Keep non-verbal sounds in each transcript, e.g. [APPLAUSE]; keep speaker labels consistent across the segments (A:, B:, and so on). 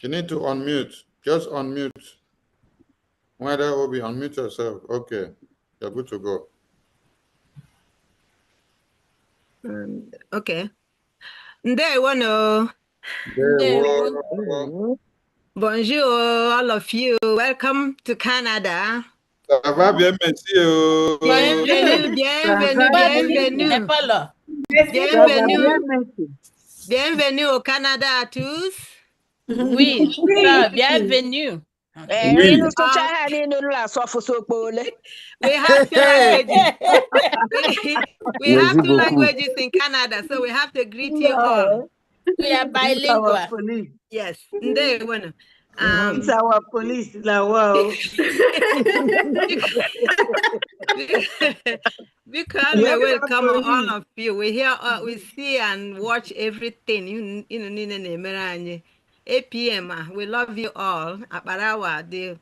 A: You need to unmute. Just unmute. Whether will be unmute yourself. Okay, you're good to go.
B: Um, okay. Ndewonu.
A: Ndewo.
B: Bonjour, all of you. Welcome to Canada.
A: Ça va bien, merci. oh. [LAUGHS]
B: Bienvenue, bienvenue, bienvenue.
C: Epolo.
B: Bienvenue. Bienvenue au Canada à tous.
C: Oui. Ah, bienvenue.
D: Ee,
A: Oui.
D: Inú sụcha ha niile nụrụ asụ ọfụsụ okpole.
B: Ah, We have two languages. we, we have two languages in Canada, so we have to greet you all.
C: We are bilingual.
E: police.
B: Yes. Ndewonu. Um,
E: It's our police lawa o.
B: [LAUGHS] because
E: Yeah,
B: we
E: we
B: will
E: have
B: come
E: to
B: all
E: leave.
B: of you. We hear, uh, we see, and watch everything. You, you know, Nina Nemeranye, APM. ah, We love you all. Aparawa, the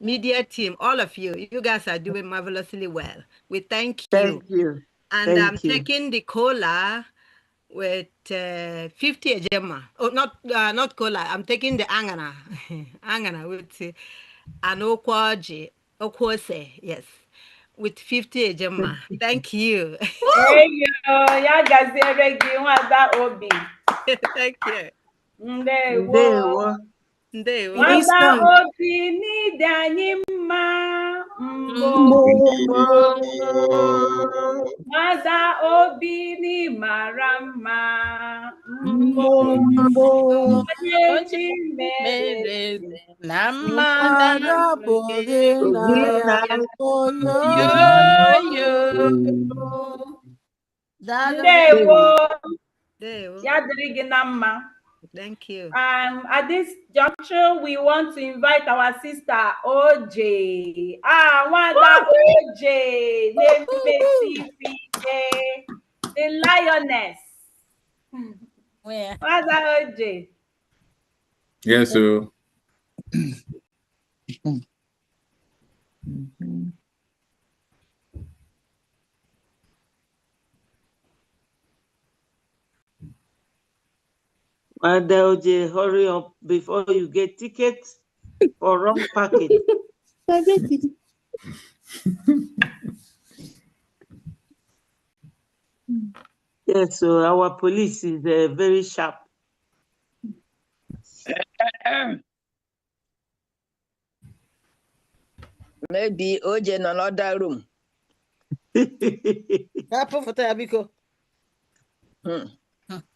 B: media team, all of you. You guys are doing marvelously well. We thank you.
E: Thank you.
B: and
E: thank
B: I'm
E: you.
B: taking the cola with uh, 50 ejema. Oh, not uh, not cola. I'm taking the angana, [LAUGHS] angana with uh, an okwaji, okwose. Yes, with 50 ejema. Thank you.
F: Eyo, ya gaziere gị nwada obi.
B: Thank you. [LAUGHS]
F: Ndewo.
E: Ndewo.
B: Ndewo.
E: This
F: Nwada
E: time.
F: obi n'ide anyị mma mbụ. Nwada obi n'ịmara mma mbụ. Onye ji mere.
C: Mere na mmadụ yoyo.
F: Ndewo,
B: Ndewo.
F: ya dịrị gị na mma.
B: Thank you.
F: Um, at this juncture, we want to invite our sister OJ. Ah, Wanda OJ, Neme CPJ, the lioness.
C: Where?
F: Wanda OJ.
G: Yes, oh. sir.
E: Madam Oje, hurry up before you get ticket for wrong packet. Yes, so our police is eh, very sharp.
D: Maybe oje nọ n'ọda rum.
H: Hapụ foto ya biko.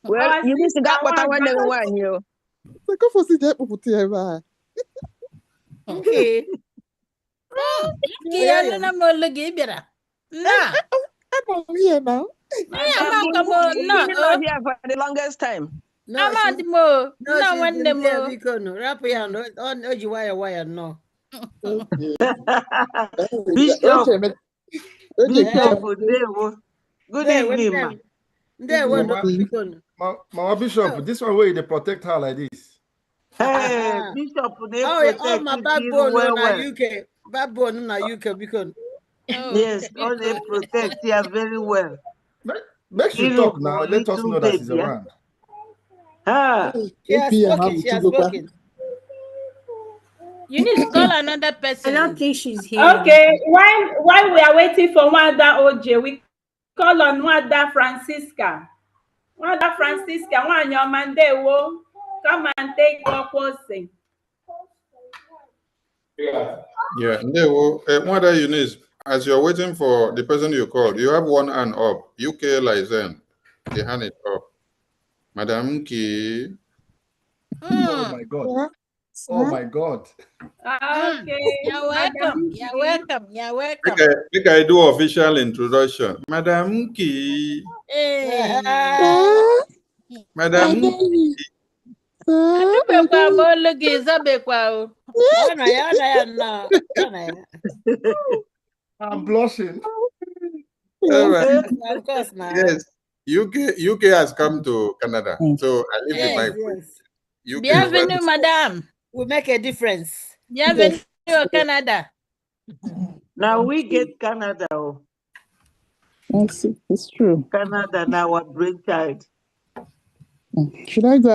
D: Well,
F: Our
D: iwu si gaa
F: sister
D: kpọta nwanne gị
F: Wanda.
D: nwaanyị o.
I: Sekafosi je ekpupụta ya ebe a.
C: Nke ya nụna m olu gị ị bịara. Na,
I: Anọ m ihe na.
C: ya ma ka m na
D: Ndị nọ here for the longest time.
C: amadi m o,
H: No,
C: na
H: she's
C: nwanne
H: in
C: m
H: there
C: o.
H: biko nụ. Rapụ ya nụ. Ọ- o ji nwayọọ nwayọọ nnọọ.
E: Bishop.
I: Oche emeka- Oche
E: Bishop
I: emeka-
E: Odewo. Good
H: Ndewo,
E: evening, ma.
H: ndewo. Ndewo nụ, biko nụ.
J: Ma- Mama Bishop, this one where they protect her like this.
E: Hey, Bishop
H: Oh,
E: Odewo,
H: all
E: protect
H: my
E: you
H: backbone
E: well,
H: na
E: well.
H: UK. Backbone na UK biko nụ.
E: Yes, all they protect here very well.
J: Make, make she
E: Little
J: talk now.
E: boy,
J: Let us
E: little
J: know that she's
E: baby, eh?
J: around.
E: Ah,
H: She has
I: APM
H: spoken, she has
I: ahụ
H: spoken.
C: You need to call another person.
F: Okay, while, while we are waiting for Wanda OJ, we call on Wanda Francisca. Wanda Francisca, nwaanyị ọma ndewo, come and take your
C: Hmm,
F: posting.
A: Yeah, Ndewo. Eh, Whether you need, as you're waiting for the person you called, you have one hand up. UK license. The hand is up. Madam Key.
J: Oh
H: Hmm.
J: my God. Oh my God.
F: Okay.
C: You're welcome, you're welcome, you're welcome.
A: Make I, make I do official introduction. Madam Key.
C: Hey.
I: Sir, I
A: Madam
I: dare you. Sir,
C: Zobekwa m olu gị zobekwa o.
H: Ọ na ya, ọ na ya nnọọ. Ọ na ya.
J: I'm blushing.
A: All right.
H: Of course na.
A: Yes. UK UK has come to Canada. So I leave the
C: Yes,
A: mic.
H: Yes.
A: UK is
C: Bienvenue,
A: welcome.
C: madam.
H: We make a difference.
C: Bienvenue au Canada.
E: now we get Canada, oh,
I: It's, it's true.
E: Canada now our brainchild.
I: Should I go